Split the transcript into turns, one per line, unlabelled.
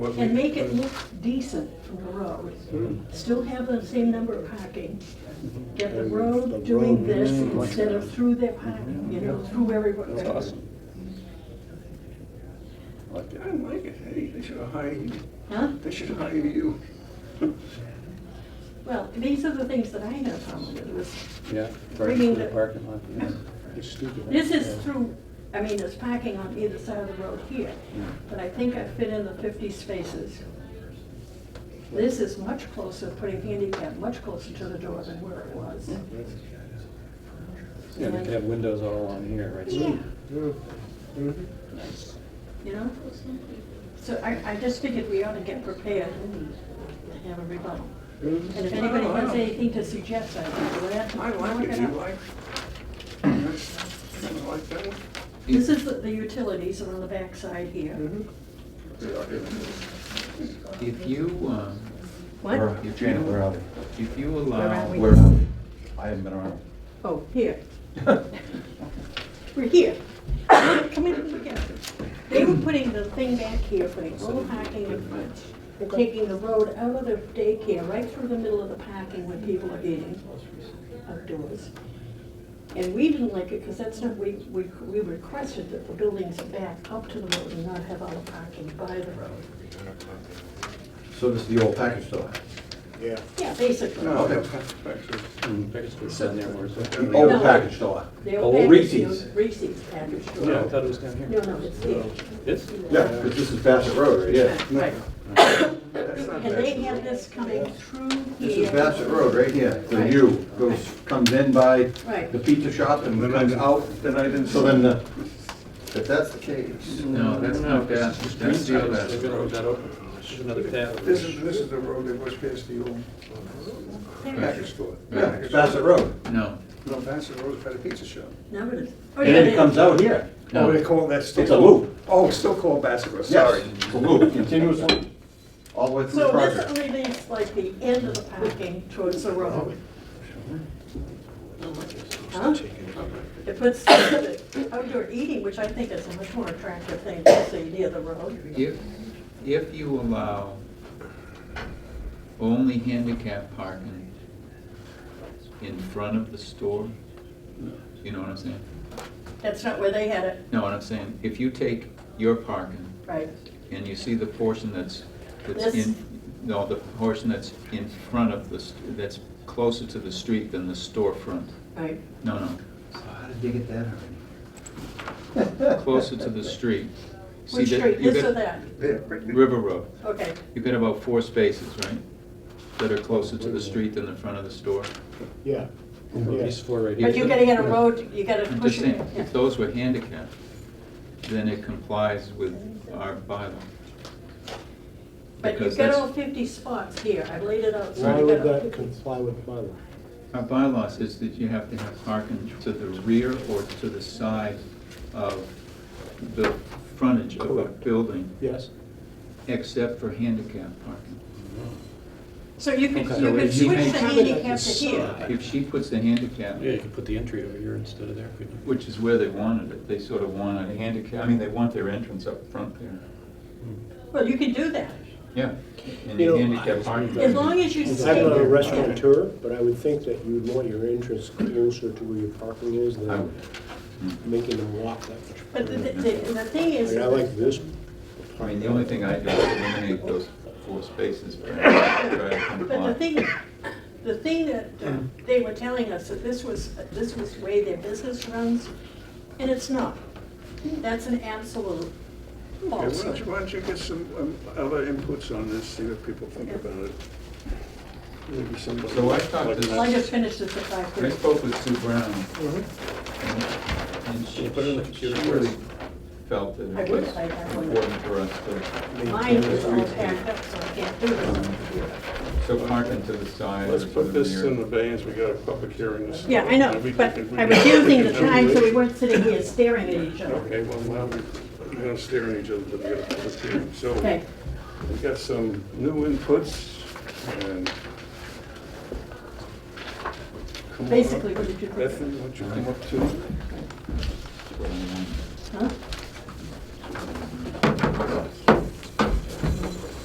What we-
and make it look decent from the
Hmm.
road. Still have the same number of parking. Get the road doing this instead of through their parking, you know, through everyone.
That's awesome.
I like it, hey, they should have hired you,
Huh?
they should have hired you.
Well, these are the things that I have found with this.
Yeah. Right
Bringing
through the
the-
parking lot, yeah. It's stupid.
This
Yeah.
is through, I mean, there's parking on either side of the road here,
Yeah.
but I think I fit in the fifty spaces. This is much closer, putting handicap much closer to the door than where it was.
Yeah, but they have windows all on here, right?
Yeah,
Mhm.
you know? So I, I just figured we ought to get prepared to have a rebuttal. And if anybody
Oh,
has
wow.
anything to suggest, I think, we'll have to.
I like it, you like, that's, kind of like that one?
This is the- the utilities are on the backside here.
Mm-hmm.
If you, um,
What?
if Janet, where are we? If you allow,
Where are we?
where are we? I haven't been around.
Oh, here. We're here. Come in, look at this. They were putting the thing back here, putting all parking in front. They're taking the road out of the daycare, right through the middle of the parking when people are eating outdoors. And we didn't like it because that's not, we, we, we requested that the buildings back up to the road and not have all the parking by the road.
So this is the old package store?
Yeah.
Yeah, basically.
No,
Okay.
that's actually,
Mm, Package was down there, where is it?
The
No.
old package store?
They were
Oh,
packaged-
Reese's.
Reese's package store.
Yeah, I thought it was down
No,
here.
no, it's here.
This?
Yeah, 'cause this is Bassett Road, right? Yeah.
Right.
that's not
And they
bad.
have this coming through here.
This is Bassett Road, right here, the
Right.
U, goes, comes in by
Right.
the pizza shop and
Then I
comes
didn't-
out.
Then I didn't.
So then, the- if that's the case.
No, that's not bad, that's
Green
not
Fields, they're
bad.
gonna hold that open. There's another tab.
This is, this is the road that goes past the old package store.
Yeah, it's Bassett Road.
No,
No, Bassett Road's by the pizza shop.
No, it is. Oh,
And
yeah,
then
it
it comes
is.
out here.
No.
Oh, they call that still.
It's a loop.
Oh, it's still called Bassett Road,
Yes,
sorry.
It's a loop, continuous loop, all the way through the
So
project.
this relieves like the end of the parking towards the road. Huh? It puts the outdoor eating, which I think is a much more attractive thing to see near the road.
if, if you allow only handicap parking in front of the store, you know what I'm saying?
That's not where they had it,
No, what I'm saying, if you take your parking
right?
and you see the portion that's, that's
This?
in, no, the portion that's in front of the, st- that's closer to the street than the storefront.
Right.
No, no,
So Oh, how did they get that already?
closer to the street. See
Which
that-
street,
you
this
got-
or that?
Yeah, right there.
River Road.
Okay,
You've got about four spaces, right? That are closer to the street than the front of the store.
Yeah.
These four right here.
but you're gonna get a road, you gotta
I'm
push
just
it.
saying,
yeah.
if those were handicapped, then it complies with our bylaw.
But
Because
you've got
that's-
all fifty spots here, I laid it out. so
Why
you've
would
got all
that
50.
comply with my law?
Our bylaw says that you have to have parking to the rear or to the side of the frontage of a building,
Yes?
except for handicap parking.
So you could,
Okay.
you could
So he
switch
makes-
the handicap to here.
If she puts the handicap,
Yeah, you could put the entry over here instead of there, couldn't you?
which is where they wanted it, they sort of want a handicap, I mean, they want their entrance up front there.
Well, you could do that,
Yeah. And
You know,
handicap parking.
as long as you stay.
I'm not a restaurateur, but I would think that you would want your entrance closer to where your parking is
I
than
would.
making them walk that much.
But the, the, the- the thing
I
is,
mean, I like this.
I mean, the only thing I do is eliminate those four spaces, but I try to
but the
comply.
thing, the thing that uh, they were telling us, that this was, this was the way their business runs, and it's not. That's an absolute
Okay, why don't
falsehood.
you, why don't you get some um, other inputs on this, see what people think about it? Maybe somebody.
So I thought this-
Well, I just finished this at five
I
thirty.
spoke with Sue Brown,
Mhm.
and she,
Put it in the
she
computer.
really felt that
I
it
would
was
like that one.
important for us to,
Mine is all packed up, so I can't do this.
Um, so parking to the side. or
Let's
to
put this
rear.
in abeyance, we got a public hearing this.
Yeah, I know,
and we
but
can- we
I was
can-
using the
we can-
time so we weren't sitting here staring at each other.
Okay, well, now we- we're not staring at each other, but we got a public hearing. So
Okay,
we got some new inputs and. Come on up.
basically, what did you think?
Bethany, why don't you come up too?
Huh?